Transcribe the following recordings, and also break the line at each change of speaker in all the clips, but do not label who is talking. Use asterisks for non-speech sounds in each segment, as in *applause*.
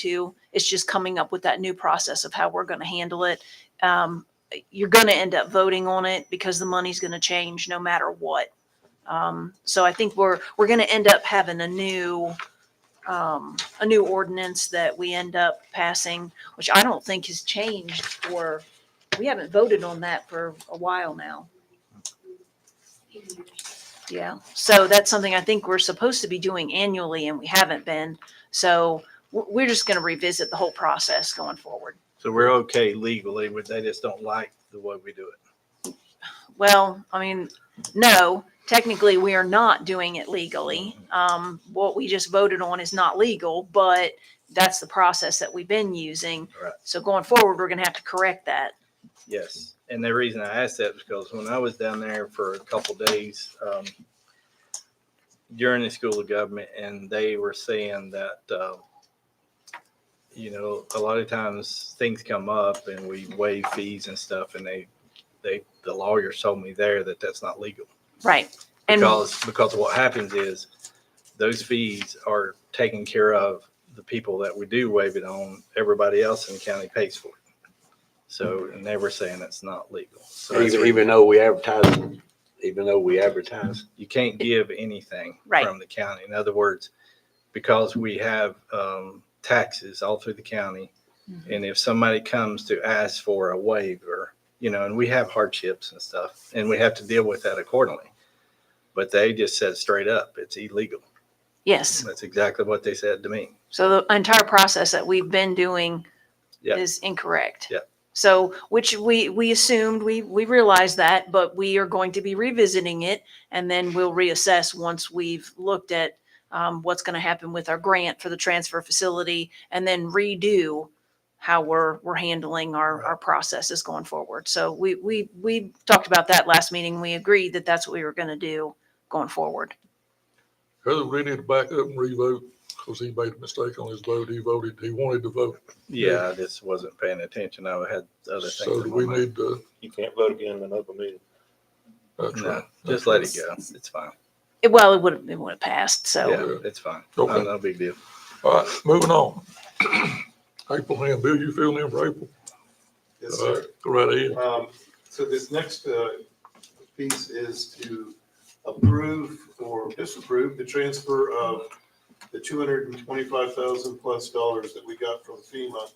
to. It's just coming up with that new process of how we're going to handle it. Um, you're going to end up voting on it because the money's going to change no matter what. Um, so I think we're, we're going to end up having a new, um, a new ordinance that we end up passing, which I don't think has changed for, we haven't voted on that for a while now. Yeah, so that's something I think we're supposed to be doing annually and we haven't been. So we're, we're just going to revisit the whole process going forward.
So we're okay legally, but they just don't like the way we do it.
Well, I mean, no, technically we are not doing it legally. Um, what we just voted on is not legal, but that's the process that we've been using.
Right.
So going forward, we're gonna have to correct that.
Yes. And the reason I asked that was because when I was down there for a couple days um, during the school of government, and they were saying that, uh, you know, a lot of times things come up and we waive fees and stuff, and they, they, the lawyers told me there that that's not legal.
Right. And
because because what happens is those fees are taken care of the people that we do waive it on everybody else in the county pays for it so and they were saying that's not legal so that's
Even,
where
even though we advertise, even though we advertise,
you can't give anything
Right.
from the county in other words because we have um, taxes all through the county
Mhm.
and if somebody comes to ask for a waiver you know and we have hardships and stuff and we have to deal with that accordingly but they just said straight up it's illegal
yes,
That's exactly what they said to me.
so the entire process that we've been doing
Yeah.
is incorrect.
Yeah.
So, which we, we assumed, we, we realized that, but we are going to be revisiting it. And then we'll reassess once we've looked at um, what's going to happen with our grant for the transfer facility and then redo how we're, we're handling our, our processes going forward. So we, we, we talked about that last meeting. We agreed that that's what we were going to do going forward.
Heather Rennie to back up and revote because he made a mistake on his vote. He voted, he wanted to vote.
Yeah, I just wasn't paying attention. I had other things.
So
in
do
my
we
mind.
need to, uh,
You can't vote again in another meeting.
that's
No,
right.
just let it go. It's fine.
It- Well, it would have, it would have passed.
Oh.
So,
Yeah, it's fine. No,
Okay.
no big deal.
All right, moving on. *clears throat* April Hand, Bill, you filling in for April?
Yes,
All
sir.
right, Go right ahead.
Um, so this next, uh, piece is to approve or disapprove the transfer of the two hundred and twenty-five thousand plus dollars that we got from FEMA,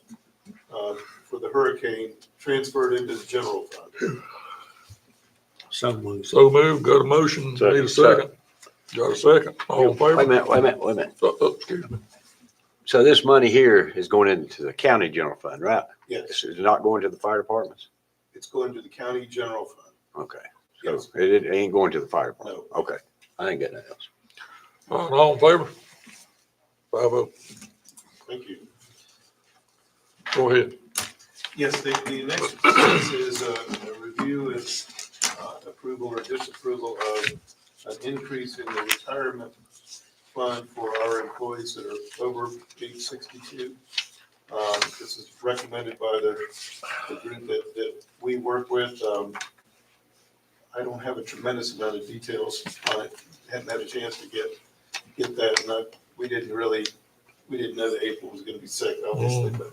uh, for the hurricane transferred into the general fund.
So move, got a motion, need a
Second.
second. Got a second, all in
wait a
favor?
minute, wait a minute, wait a minute.
Uh, uh, Excuse me.
So this money here is going into the county general fund, right?
Yes,
It's it's not going to the fire departments?
it's going to the county general fund.
Okay. So
Yes,
it, it ain't going to the fire department? Okay. I ain't got nothing else.
All right, All in favor? Five oh,
thank you.
go ahead.
Yes, the, the next piece is uh, a review is uh, approval or disapproval of an increase in the retirement fund for our employees that are over age sixty-two. Um, This is recommended by the, the group that, that we work with. Um, I don't have a tremendous amount of details on it, hadn't had a chance to get, get that, and I, we didn't really, we didn't know that April was gonna be sick, obviously, but,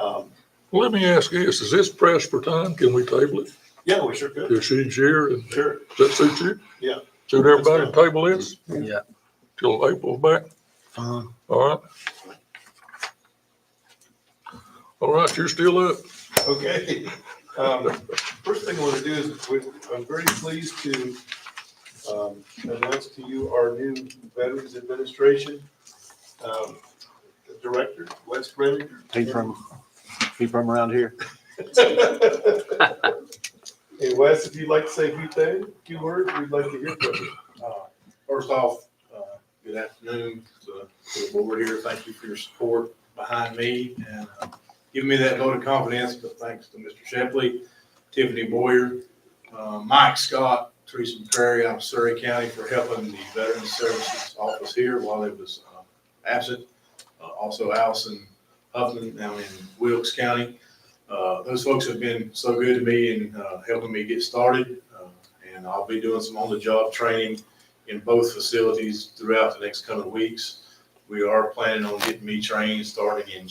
um,
Let me ask you this, is this press for time? Can we table it?
yeah, we sure could.
If she's here, and
Sure.
does that suit you?
Yeah.
Suit everybody to table this?
Yeah.
Till April's back?
Fine.
All right. All right, you're still up.
Okay. Um, First thing I want to do is, we- I'm very pleased to um, announce to you our new Veterans Administration um, Director, Wes Brenner.
He from, he from around here?
*laughs* Hey, Wes, if you'd like to say a few things, few words, we'd like to hear from you.
Uh, First off, uh, good afternoon to to the board here. Thank you for your support behind me and uh, giving me that vote of confidence, but thanks to Mr. Shepley, Tiffany Boyer, uh, Mike Scott, Teresa McCrary out of Surrey County for helping the Veterans Services Office here while I was uh, absent. Uh, Also Allison Huffman down in Wilkes County. Uh, Those folks have been so good to me in uh, helping me get started. uh, And I'll be doing some on-the-job training in both facilities throughout the next coming weeks. We are planning on getting me trained starting in